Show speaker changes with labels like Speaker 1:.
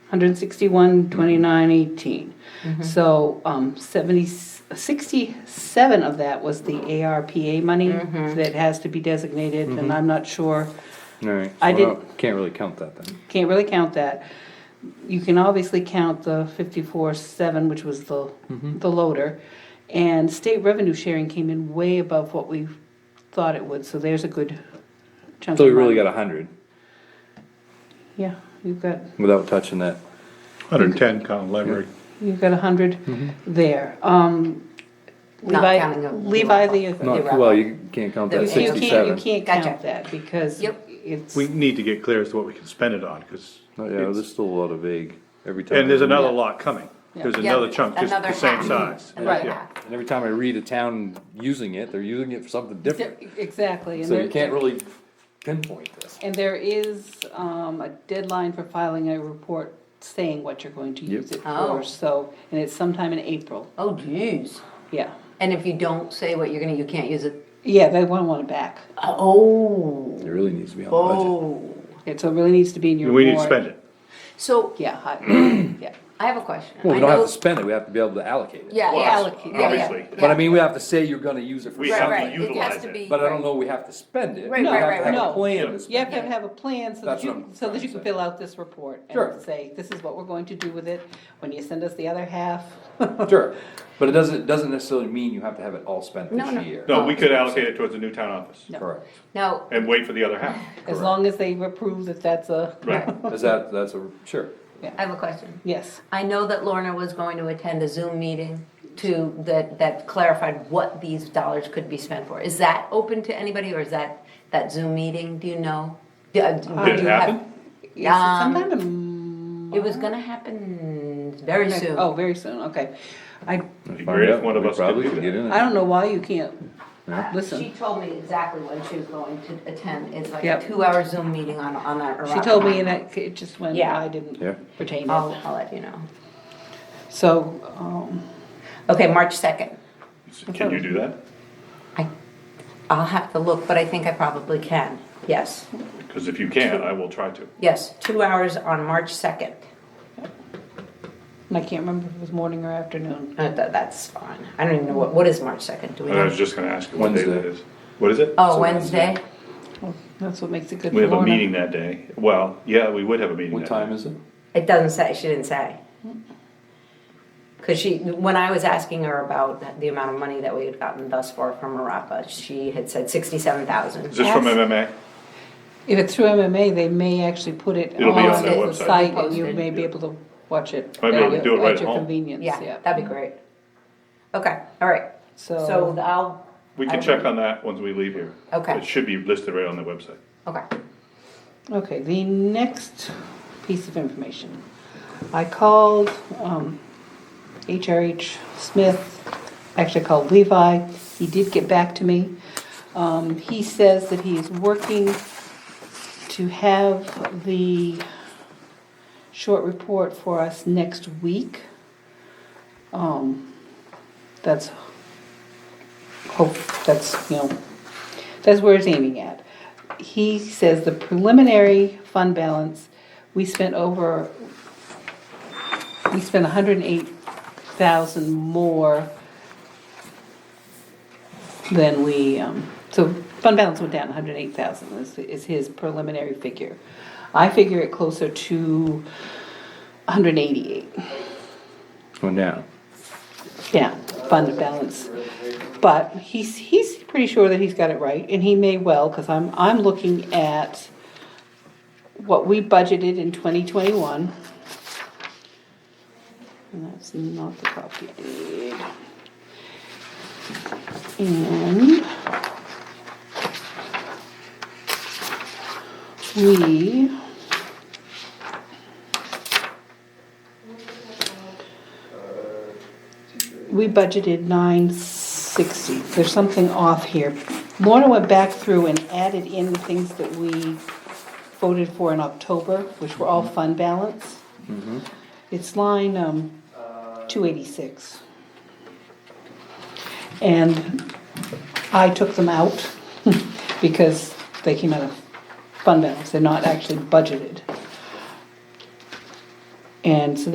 Speaker 1: 161, 29, 18.
Speaker 2: Mm-hmm.
Speaker 1: So um, 70, 67 of that was the ARPA money
Speaker 2: Mm-hmm.
Speaker 1: that has to be designated, and I'm not sure,
Speaker 2: All right.
Speaker 1: I
Speaker 2: well,
Speaker 1: did-
Speaker 2: Can't really count that then.
Speaker 1: can't really count that. You can obviously count the 54, 7, which was the,
Speaker 2: Mm-hmm.
Speaker 1: the loader. And state revenue sharing came in way above what we thought it would, so there's a good chunk
Speaker 2: So we
Speaker 1: of
Speaker 2: really
Speaker 1: money.
Speaker 2: got a hundred
Speaker 1: Yeah, you've got,
Speaker 2: without touching that.
Speaker 3: 110 Con Leverett.
Speaker 1: you've got a hundred
Speaker 3: Mm-hmm.
Speaker 1: there. Um,
Speaker 4: Not
Speaker 1: Levi,
Speaker 4: counting the-
Speaker 1: Levi the,
Speaker 2: Not,
Speaker 4: wrap
Speaker 2: well,
Speaker 4: up.
Speaker 2: you can't count that
Speaker 4: The-
Speaker 1: you can't, you
Speaker 2: sixty-seven.
Speaker 1: can't
Speaker 4: Gotcha.
Speaker 1: count that because
Speaker 4: Yep.
Speaker 1: it's,
Speaker 3: We need to get clear as to what we can spend it on, because,
Speaker 2: Oh, Yeah, there's still a lot of vague every time.
Speaker 3: and there's
Speaker 2: I-
Speaker 3: another lot coming. There's
Speaker 4: Yeah.
Speaker 3: another chunk, just
Speaker 4: Another
Speaker 3: the same
Speaker 4: half.
Speaker 3: size.
Speaker 4: Another
Speaker 3: Yeah.
Speaker 4: half.
Speaker 2: And every time I read a town using it, they're using it for something different.
Speaker 1: exactly. and
Speaker 2: So
Speaker 1: there-
Speaker 2: you can't really pinpoint this.
Speaker 1: And there is, um, a deadline for filing a report saying what you're going to use it
Speaker 4: Oh.
Speaker 1: for, so, and it's sometime in April,
Speaker 4: Oh jeez.
Speaker 1: yeah.
Speaker 4: And if you don't say what you're gonna, you can't use it.
Speaker 1: Yeah, they want one back.
Speaker 4: Oh.
Speaker 2: It really needs to be on the budget.
Speaker 4: Oh.
Speaker 1: It, so it really needs to be in your
Speaker 3: We need to
Speaker 1: warrant.
Speaker 3: spend it.
Speaker 4: So
Speaker 1: Yeah, I, yeah.
Speaker 4: I have a question.
Speaker 2: Well, we
Speaker 4: I
Speaker 2: don't
Speaker 4: know-
Speaker 2: have to spend it, we have to be able to allocate it.
Speaker 4: Yeah,
Speaker 1: Well,
Speaker 4: yeah.
Speaker 1: allocate,
Speaker 4: yeah, yeah,
Speaker 3: obviously.
Speaker 4: yeah.
Speaker 2: But I mean, we have to say you're gonna use it for
Speaker 3: We
Speaker 4: Right,
Speaker 3: have to
Speaker 2: something,
Speaker 4: right. It has
Speaker 3: utilize
Speaker 4: to
Speaker 3: it.
Speaker 4: be.
Speaker 2: but I don't
Speaker 4: right.
Speaker 2: know we have to spend it.
Speaker 4: Right,
Speaker 2: We
Speaker 4: right,
Speaker 2: have to
Speaker 4: right,
Speaker 2: have a
Speaker 1: right. No.
Speaker 2: plan to spend
Speaker 1: You have to
Speaker 4: Yeah.
Speaker 1: have a plan so
Speaker 2: That's
Speaker 1: that you,
Speaker 2: what I'm
Speaker 1: so that
Speaker 2: trying
Speaker 1: you
Speaker 2: to
Speaker 1: can
Speaker 2: say.
Speaker 1: fill out this report
Speaker 2: Sure.
Speaker 1: and say, this is what we're going to do with it, when you send us the other half.
Speaker 2: it. Sure, but it doesn't, it doesn't necessarily mean you have to have it all spent
Speaker 4: No, no.
Speaker 2: this year.
Speaker 3: No, we could allocate it towards the new town office
Speaker 1: No.
Speaker 2: Correct.
Speaker 4: Now,
Speaker 3: and wait for the other half.
Speaker 1: As
Speaker 2: Correct.
Speaker 1: long as they approve that that's a,
Speaker 3: Right.
Speaker 2: Is that, that's a, sure.
Speaker 4: I have a question.
Speaker 1: yes,
Speaker 4: I know that Lorna was going to attend a Zoom meeting to, that, that clarified what these dollars could be spent for. Is that open to anybody, or is that, that Zoom meeting, do uh, you know? Did
Speaker 3: Did it happen?
Speaker 1: Yes,
Speaker 4: Um,
Speaker 1: sometime in.
Speaker 4: It was gonna happen very
Speaker 1: March.
Speaker 4: soon.
Speaker 1: Oh, very soon, okay. I,
Speaker 2: Find
Speaker 3: be great if
Speaker 2: out.
Speaker 3: one of
Speaker 2: We
Speaker 3: us could
Speaker 2: Probably
Speaker 3: do
Speaker 2: could
Speaker 3: that.
Speaker 2: get in
Speaker 1: I
Speaker 2: it.
Speaker 1: don't know why you can't
Speaker 2: Yeah.
Speaker 4: She
Speaker 1: listen.
Speaker 4: told me exactly when she was going to attend, it's like a
Speaker 1: Yep.
Speaker 4: two-hour Zoom meeting on, on that.
Speaker 1: She told me and it, it just went,
Speaker 4: Yeah. Oh.
Speaker 1: I didn't
Speaker 2: Yeah.
Speaker 1: retain
Speaker 4: I'll,
Speaker 1: it.
Speaker 4: I'll let you know.
Speaker 1: So, um,
Speaker 4: Okay, March second.
Speaker 3: Can you do that?
Speaker 4: I, I'll have to look, but I think I probably can, yes.
Speaker 3: Because if you can, I will try to.
Speaker 4: Yes, two hours on March second.
Speaker 1: and I can't remember if it was morning or afternoon.
Speaker 4: Uh, tha- that's fine. I don't even know what, what is March second, do we
Speaker 3: And I was
Speaker 4: know?
Speaker 3: just gonna ask you what day that
Speaker 2: Wednesday.
Speaker 3: is. What is it?
Speaker 4: Oh,
Speaker 2: Wednesday.
Speaker 4: Wednesday?
Speaker 1: That's what makes it good
Speaker 3: We
Speaker 1: for
Speaker 3: have a
Speaker 1: Lorna.
Speaker 3: meeting that day. Well, yeah, we would have a meeting
Speaker 2: What
Speaker 3: that
Speaker 2: time
Speaker 3: day.
Speaker 2: is it?
Speaker 4: It doesn't say, she didn't say. Cause she, when I was asking her about the amount of money that we had gotten thus far from Marapa, she had said sixty-seven
Speaker 3: Is
Speaker 4: thousand.
Speaker 3: this from
Speaker 1: Yes.
Speaker 3: MMA?
Speaker 1: If it's through MMA, they may actually put it
Speaker 3: It'll be on
Speaker 1: on
Speaker 3: their
Speaker 1: the
Speaker 3: website.
Speaker 1: site and you
Speaker 4: Posted.
Speaker 1: may be able to watch it.
Speaker 3: Might be able to
Speaker 1: at
Speaker 3: do it
Speaker 1: your-
Speaker 3: right at
Speaker 1: your
Speaker 3: home.
Speaker 1: convenience,
Speaker 4: Yeah, that'd be great. Okay, all right. So
Speaker 1: So,
Speaker 4: I'll,
Speaker 3: We
Speaker 4: I
Speaker 3: can
Speaker 4: don't
Speaker 3: check
Speaker 4: know.
Speaker 3: on that once we leave here.
Speaker 4: Okay.
Speaker 3: It should be listed right on the website.
Speaker 4: okay.
Speaker 1: okay, the next piece of information. I called, um, HRH Smith, actually called Levi. He did get back to me. Um, he says that he is working to have the short report for us next week. Um, that's, hope, Oh, that's, you know, that's where it's aiming at. He says the preliminary fund balance, we spent over, we spent hundred and eight thousand more than we, um, so fund balance went down hundred and eight thousand is, is his preliminary figure. I figure it closer to hundred and eighty-eight.
Speaker 2: Oh, now.
Speaker 1: Yeah, fund balance. But he's, he's pretty sure that he's got it right, and he may well, because I'm, I'm looking at what we budgeted in twenty twenty-one. And that's not the copy I did. And we we budgeted nine sixty, there's something off here. Lorna went back through and added in the things that we voted for in October, which were all fund balance. It's line, um, two eighty-six. And I took them out because they came out of fund balance, they're not actually budgeted. And so